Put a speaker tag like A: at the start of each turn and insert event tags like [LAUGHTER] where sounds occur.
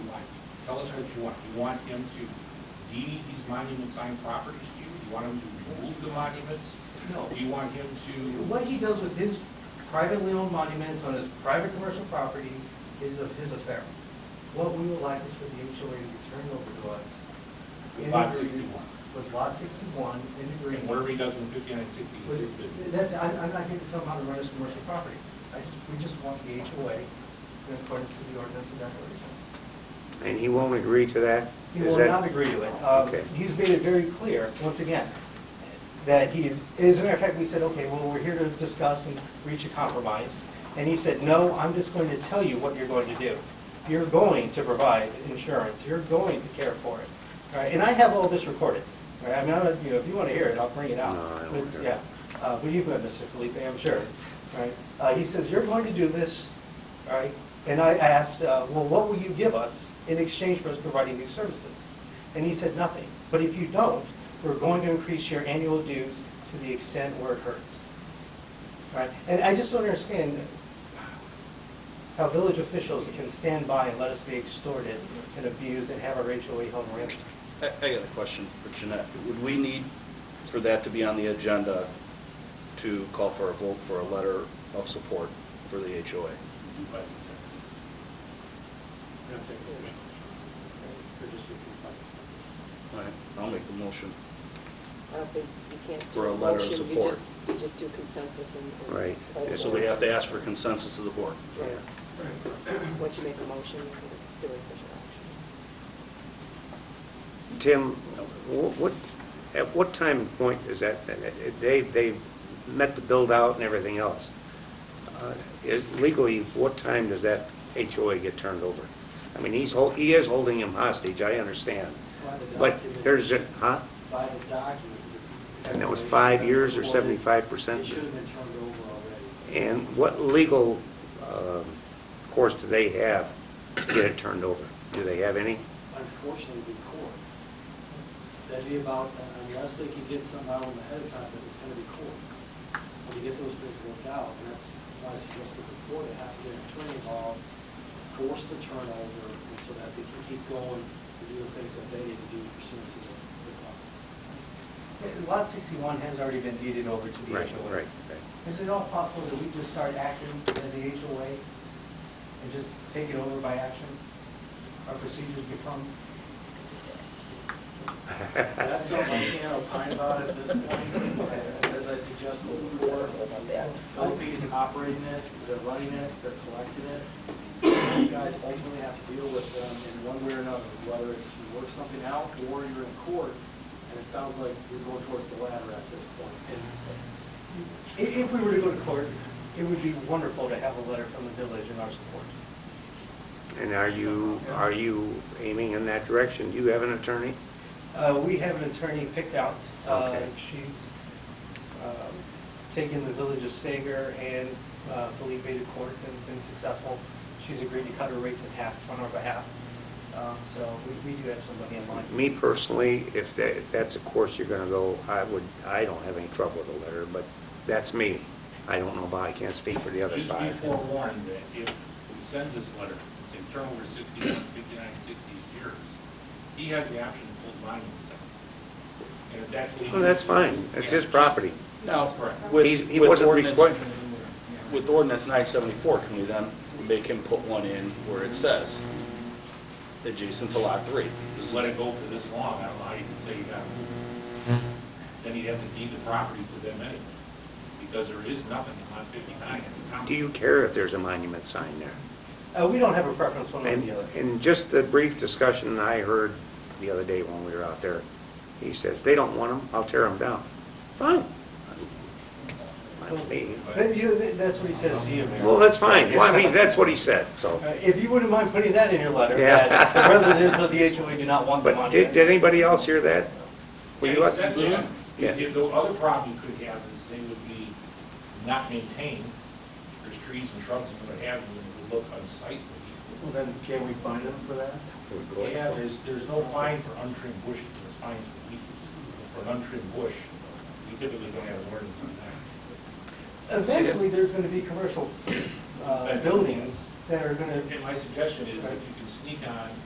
A: Tell us what you want. Do you want him to deed these monument sign properties to you? Do you want him to remove the monuments?
B: No.
A: Do you want him to,
B: What he does with his privately owned monuments on his private commercial property is of his affair. What we would like is for the HOA to turn over to us.
A: With
B: in
A: lot
B: agreement-
A: 61.
B: With lot sixty-one in
A: and
B: agreement.
A: whatever he does in fifty-nine, sixty, he's his
B: But
A: business?
B: That's, I'm, I'm not here to tell him how to run his commercial property. I just, we just want the HOA in accordance to the ordinance and declaration.
C: And he won't agree to that?
B: He
C: Is
B: will
C: that-
B: not agree to it. Um,
C: Okay.
B: He's made it very clear, once again, that he is, as a matter of fact, we said, okay, well, we're here to discuss and reach a compromise. And he said, no, I'm just going to tell you what you're going to do. You're going to provide insurance, you're going to care for it. All right, And I have all this recorded. All right, I mean, I don't- you know, if you want to hear it, I'll bring it out.
C: No, I don't
B: But it's-
C: care.
B: Yeah, Uh, but you've met Mr. Felipe, I'm sure, right? Uh, He says, you're going to do this, all right? And I asked, uh, well, what will you give us in exchange for us providing these services? And he said, nothing. But if you don't, we're going to increase your annual dues to the extent where it hurts. All Right? And I just don't understand how village officials can stand by and let us be extorted and abused and have our HOA home ransacked.
D: I I got a question for Jeanette. Would we need for that to be on the agenda to call for a vote for a letter of support for the HOA?
A: Do by consensus. That's it. Or just do it by consensus.
D: All right, I'll make the motion.
E: I don't think you can't do
D: For a
E: a
D: letter of
E: motion, you
D: support.
E: just, you just do consensus and. and
C: Right.
E: vote
C: Yeah,
D: So
E: for
D: we
E: it.
D: have to ask for consensus of the board.
E: Right. Once you make a motion, you can do it official action.
C: Tim, wh- what, at what time and point is that, they, they met the build-out and everything else. Uh, Is Legally, what time does that HOA get turned over? I mean, he's, hol- he is holding him hostage, I understand. But there's, a huh?
F: by the document.
C: And that was five years or seventy-five
F: It
C: percent?
F: should have been turned over already.
C: And what legal um, course do they have to get it turned over? Do they have any?
F: Unfortunately, the court. That'd be about, unless they could get something out of them ahead of time, but it's gonna be court. When you get those things worked out, and that's why I suggested before, they have to get an attorney involved, force the turnover, and so that they can keep going and do the things that they need to do pursuant to the the law.
B: Lot 61 has already been deeded over to the HOA.
C: Right, right, right.
B: Is it all possible that we just start acting as the HOA and just take it over by action? Our procedures become,
F: That's something I can't opine about at this point. As I suggested before, Philippines operating it, they're running it, they're collecting it. You guys ultimately have to deal with them in one way or another, whether it's you work something out or you're in court. And it sounds like you're going towards the latter at this point.
B: i- if we were to go to court, it would be wonderful to have a letter from the village in our support.
C: And are you, are you aiming in that direction? Do you have an attorney?
B: Uh, We have an attorney picked out. Uh,
C: Okay.
B: She's um, taken the village of Stager and uh, Felipe to court and been successful. She's agreed to cut her rates in half on our behalf. Um, So we- we do have somebody in mind.
C: Me personally, if that, if that's the course you're gonna go, I would, I don't have any trouble with a letter, but that's me. I don't know about, I can't speak for the other
A: Just be
C: five.
A: forewarned that if we send this letter, and say turn over 60, 59, 60 years, he has the option to pull the monuments out. And if that's what he
C: Well, Oh, that's
A: chooses to
C: fine,
A: do,
C: it's
A: yeah,
C: his
A: just-
C: property.
D: Now,
C: He's-
D: with
C: He
D: with
C: wasn't
D: ordinance-
C: required,
D: With ordinance 974, can we then make him put one in where it says adjacent to lot three? This
A: Just
D: is-
A: let it go for this long, I don't know how you can say you gotta move it. Then he'd have to deed the property to them anyway, because there is nothing on 59, it's common.
C: do you care if there's a monument sign there?
B: Uh, We don't have a preference one way or
C: And,
B: the other.
C: and just the brief discussion I heard the other day when we were out there, he says, "If they don't want them, I'll tear them down. Fine. Fine with me.
B: But, you know, th- That's what he says to you, Mayor.
C: Well, that's fine, well, I mean, that's what he said, so.
B: [LAUGHS] Uh, If you wouldn't mind putting that in your letter,
C: Yeah.
B: that the residents of the HOA do not want the
C: But
B: monuments.
C: did, did anybody else hear that? Were you
A: Having
C: up-
A: said that,
C: Yeah.
A: if the other problem you could have is they would be not maintained, there's trees and shrubs and what have you, and it would look unsightly.
F: Well, then, can we find them for that?
A: Yeah, there's, there's no fine for untrimmed bushes, there's fines for weeds. For an untrimmed bush, we typically don't have an ordinance on that.
B: Eventually, there's going to be commercial uh,
A: Eventually.
B: buildings that are going to
A: And my suggestion is if you can sneak on